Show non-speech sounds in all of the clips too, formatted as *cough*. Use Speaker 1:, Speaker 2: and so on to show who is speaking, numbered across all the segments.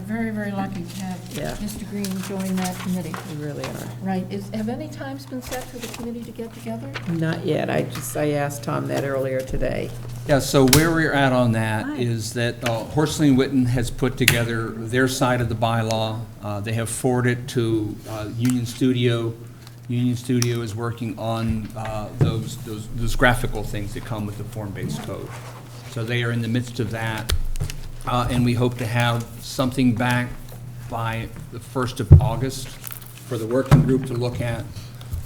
Speaker 1: very lucky to have
Speaker 2: Yeah.
Speaker 1: Mr. Green join that committee.
Speaker 2: We really are.
Speaker 1: Right, is, have any times been set for the committee to get together?
Speaker 2: Not yet. I just, I asked Tom that earlier today.
Speaker 3: Yeah, so where we're at on that
Speaker 2: Hi.
Speaker 3: is that uh, Horsley and Witten has put together their side of the bylaw. Uh, They have forwarded it to uh, Union Studio. Union Studio is working on uh, those, those those graphical things that come with the form-based code. So they are in the midst of that, Uh, and we hope to have something back by the 1st of August for the working group to look at.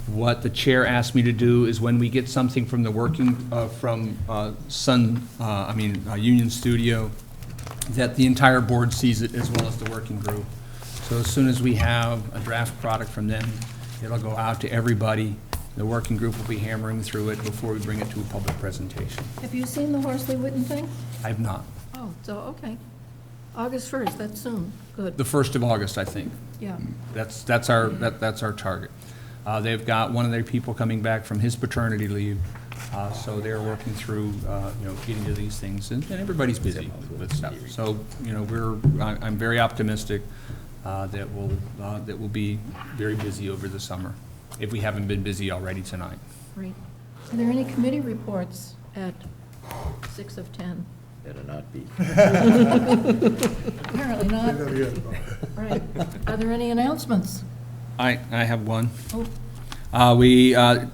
Speaker 3: What the chair asked me to do is when we get something from the working, uh, from uh, Sun, uh, I mean, uh, Union Studio, that the entire board sees it as well as the working group. So as soon as we have a draft product from them, it'll go out to everybody. The working group will be hammering through it before we bring it to a public presentation.
Speaker 1: Have you seen the Horsley Witten thing?
Speaker 3: I've not.
Speaker 1: Oh, so, okay. August 1st, that's soon, good,
Speaker 3: The 1st of August, I think.
Speaker 1: yeah.
Speaker 3: That's, that's our, that, that's our target. Uh, they've got one of their people coming back from his paternity leave, uh, so they're working through, uh, you know, getting to these things, and, and everybody's busy with stuff. So, you know, we're, I, I'm very optimistic, uh, that we'll, uh, that we'll be very busy over the summer, if we haven't been busy already tonight.
Speaker 1: Great. Are there any committee reports at 6 of 10?
Speaker 4: Better not
Speaker 1: *laughs*
Speaker 4: be.
Speaker 1: Apparently not. Right. Are there any announcements?
Speaker 3: I, I have one.
Speaker 1: Oh,
Speaker 3: Uh, We, uh,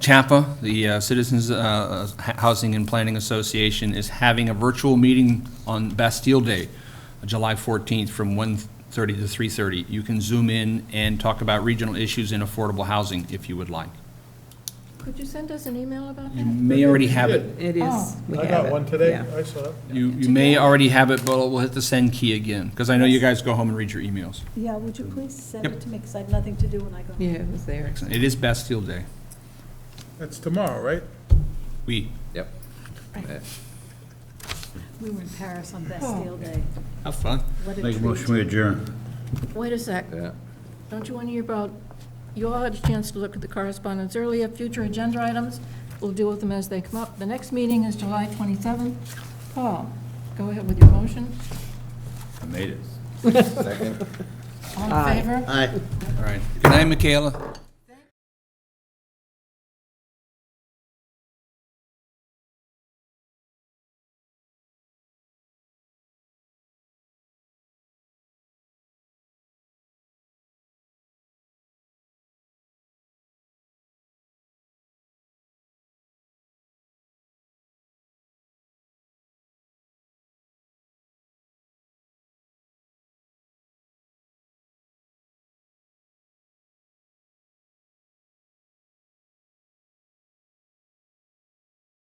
Speaker 3: CHAPA, the uh, Citizens uh, H- Housing and Planning Association, is having a virtual meeting on Bastille Day, July 14th, from 1:30 to 3:30. You can zoom in and talk about regional issues in affordable housing if you would like.
Speaker 1: could you send us an email about
Speaker 3: You
Speaker 1: that?
Speaker 3: may already have it.
Speaker 2: It
Speaker 1: Oh.
Speaker 2: is. we
Speaker 5: I
Speaker 2: have
Speaker 5: got
Speaker 2: it,
Speaker 5: one today,
Speaker 2: yeah.
Speaker 5: I saw it.
Speaker 3: You you may already have it, but we'll hit the send key again, because I know you guys go home and read your emails.
Speaker 6: Yeah, would you please send
Speaker 3: Yep.
Speaker 6: it to me, because I have nothing to do when I go.
Speaker 2: Yeah, it was there.
Speaker 3: It is Bastille Day.
Speaker 5: That's tomorrow, right?
Speaker 3: We,
Speaker 4: Yep.
Speaker 6: We were in Paris on Bastille Day.
Speaker 3: have fun.
Speaker 6: What a
Speaker 7: Make a motion
Speaker 6: treat.
Speaker 7: we adjourn.
Speaker 1: Wait a sec.
Speaker 4: Yeah.
Speaker 1: Don't you want to hear about, you all had a chance to look at the correspondence earlier, future agenda items, we'll deal with them as they come up. The next meeting is July 27th. Paul, go ahead with your motion.
Speaker 7: I made it.
Speaker 1: All in favor?
Speaker 3: All right. Good night, Michaela.